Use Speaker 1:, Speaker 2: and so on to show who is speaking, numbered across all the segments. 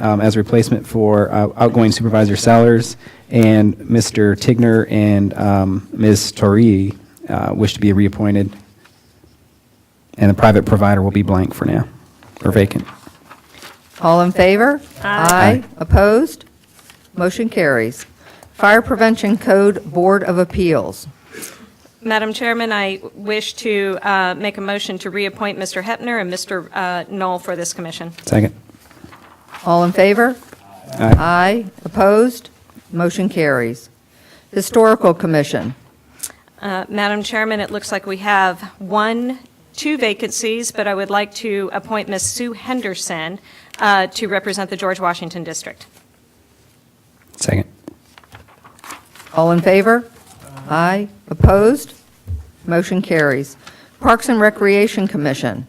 Speaker 1: um, as replacement for uh, outgoing supervisor Sellers, and Mr. Tigner and um, Ms. Torre uh, wish to be reappointed. And the private provider will be blank for now, or vacant.
Speaker 2: All in favor? Aye. Opposed? Motion carries. Fire Prevention Code Board of Appeals.
Speaker 3: Madam Chairman, I wish to uh, make a motion to reappoint Mr. Hepner and Mr. uh, Knoll for this commission.
Speaker 1: Second. Uh,
Speaker 2: All in favor?
Speaker 1: Aye.
Speaker 2: Opposed? Motion carries. Historical Commission.
Speaker 3: Uh, Madam Chairman, it looks like we have one, two vacancies, but I would like to appoint Ms. Sue Henderson uh, to represent the George Washington District.
Speaker 1: Second.
Speaker 2: All in favor? Aye. Opposed? Motion carries. Parks and Recreation Commission.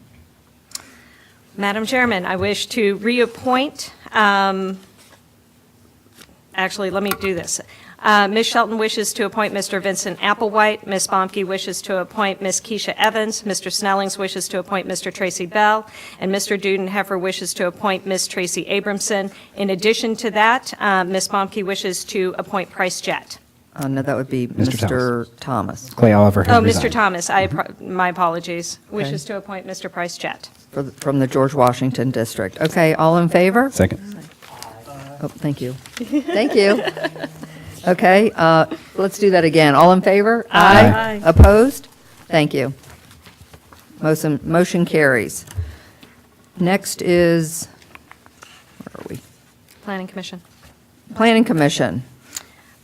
Speaker 3: Madam Chairman, I wish to reappoint, um, actually, let me do this. Uh, Ms. Shelton wishes to appoint Mr. Vincent Applewhite, Ms. Bomke wishes to appoint Ms. Keisha Evans, Mr. Snellings wishes to appoint Mr. Tracy Bell, and Mr. Dudenheffer wishes to appoint Ms. Tracy Abramson. In addition to that, uh, Ms. Bomke wishes to appoint Price Jett.
Speaker 2: Uh, No, that would be
Speaker 1: Mr.
Speaker 2: Mr. Thomas
Speaker 1: Clay Oliver
Speaker 3: Oh,
Speaker 1: has
Speaker 3: Mr.
Speaker 1: resigned.
Speaker 3: Thomas, I, appro- my apologies, wishes to appoint Mr. Price Jett.
Speaker 2: for the- from the George Washington District. Okay, all in favor?
Speaker 1: Second.
Speaker 2: Oh, thank you. Thank you. Okay, uh, let's do that again. All in favor?
Speaker 1: Aye.
Speaker 2: Opposed? Thank you. Motion motion carries. Next is, where are we?
Speaker 3: Planning Commission.
Speaker 2: Planning Commission.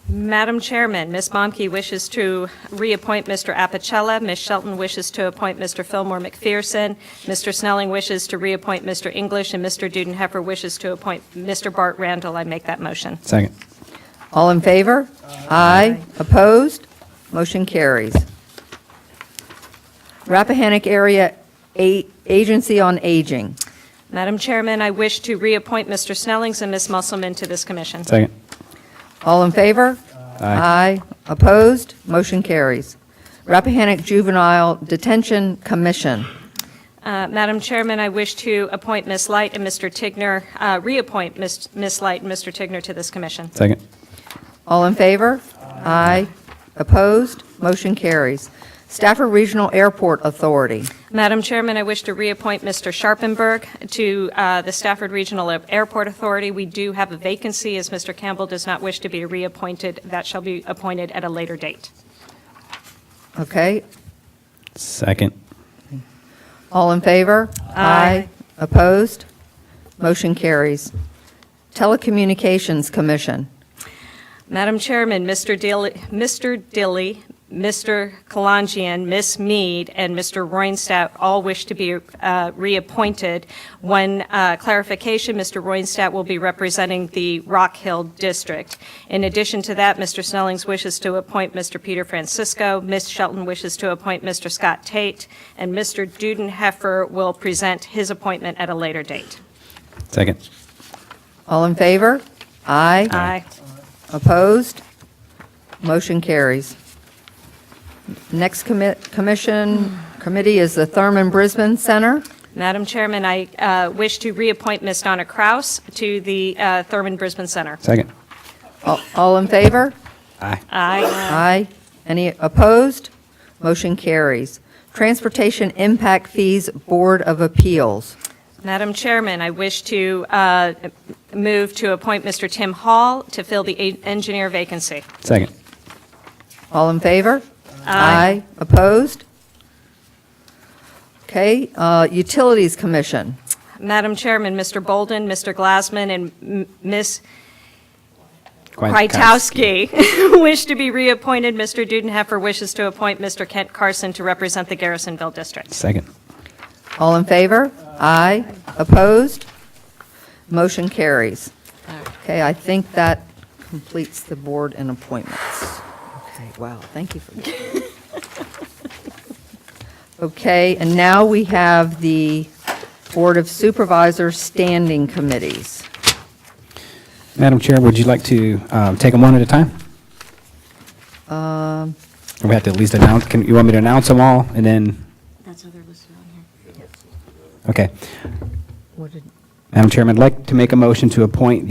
Speaker 3: Madam Chairman, Ms. Bomke wishes to reappoint Mr. Apicella, Ms. Shelton wishes to appoint Mr. Fillmore McPherson, Mr. Snelling wishes to reappoint Mr. English, and Mr. Dudenheffer wishes to appoint Mr. Bart Randall. I make that motion.
Speaker 1: Second.
Speaker 2: All in favor? Aye. Opposed? Motion carries. Rappahannock Area A- Agency on Aging.
Speaker 3: Madam Chairman, I wish to reappoint Mr. Snellings and Ms. Musselman to this commission.
Speaker 1: Second.
Speaker 2: All in favor? Aye. Opposed? Motion carries. Rappahannock Juvenile Detention Commission.
Speaker 3: Uh, Madam Chairman, I wish to appoint Ms. Light and Mr. Tigner, uh, reappoint Ms. Ms. Light and Mr. Tigner to this commission.
Speaker 1: Second.
Speaker 2: All in favor? Aye. Opposed? Motion carries. Stafford Regional Airport Authority.
Speaker 3: Madam Chairman, I wish to reappoint Mr. Sharpenberg to uh, the Stafford Regional Airport Authority. We do have a vacancy, as Mr. Campbell does not wish to be reappointed. That shall be appointed at a later date.
Speaker 2: Okay,
Speaker 1: Second.
Speaker 2: all in favor? Aye. Opposed? Motion carries. Telecommunications Commission.
Speaker 3: Madam Chairman, Mr. Dilly, Mr. Dilly, Mr. Kalangian, Ms. Mead, and Mr. Roinstadt all wish to be uh, reappointed. One uh, clarification, Mr. Roinstadt will be representing the Rock Hill District. In addition to that, Mr. Snellings wishes to appoint Mr. Peter Francisco, Ms. Shelton wishes to appoint Mr. Scott Tate, and Mr. Dudenheffer will present his appointment at a later date.
Speaker 1: Second.
Speaker 2: All in favor? Aye.
Speaker 3: Aye.
Speaker 2: Opposed? Motion carries. Next commi- commission, committee is the Thurman Brisbane Center.
Speaker 3: Madam Chairman, I uh, wish to reappoint Ms. Donna Kraus to the uh, Thurman Brisbane Center.
Speaker 1: Second.
Speaker 2: All- All in favor?
Speaker 1: Aye.
Speaker 3: Uh, Aye.
Speaker 2: Aye. Any opposed? Motion carries. Transportation Impact Fees Board of Appeals.
Speaker 3: Madam Chairman, I wish to uh, move to appoint Mr. Tim Hall to fill the a- engineer vacancy.
Speaker 1: Second.
Speaker 2: All in favor? Aye. Opposed? Okay, uh, Utilities Commission.
Speaker 3: Madam Chairman, Mr. Bolden, Mr. Glassman, and M- Ms.
Speaker 1: Kwiatkowski.
Speaker 3: Krytowski wish to be reappointed. Mr. Dudenheffer wishes to appoint Mr. Kent Carson to represent the Garrisonville District.
Speaker 1: Second.
Speaker 2: All in favor? Aye. Opposed? Motion carries. Okay, I think that completes the board and appointments. Okay, wow, thank you for that. Okay, and now we have the Board of Supervisors Standing Committees.
Speaker 1: Madam Chair, would you like to um, take them one at a time? Or we have to at least announce, can, you want me to announce them all and then,
Speaker 4: That's how they're listed on here.
Speaker 1: okay.
Speaker 2: What did-
Speaker 1: Madam Chairman, I'd like to make a motion to appoint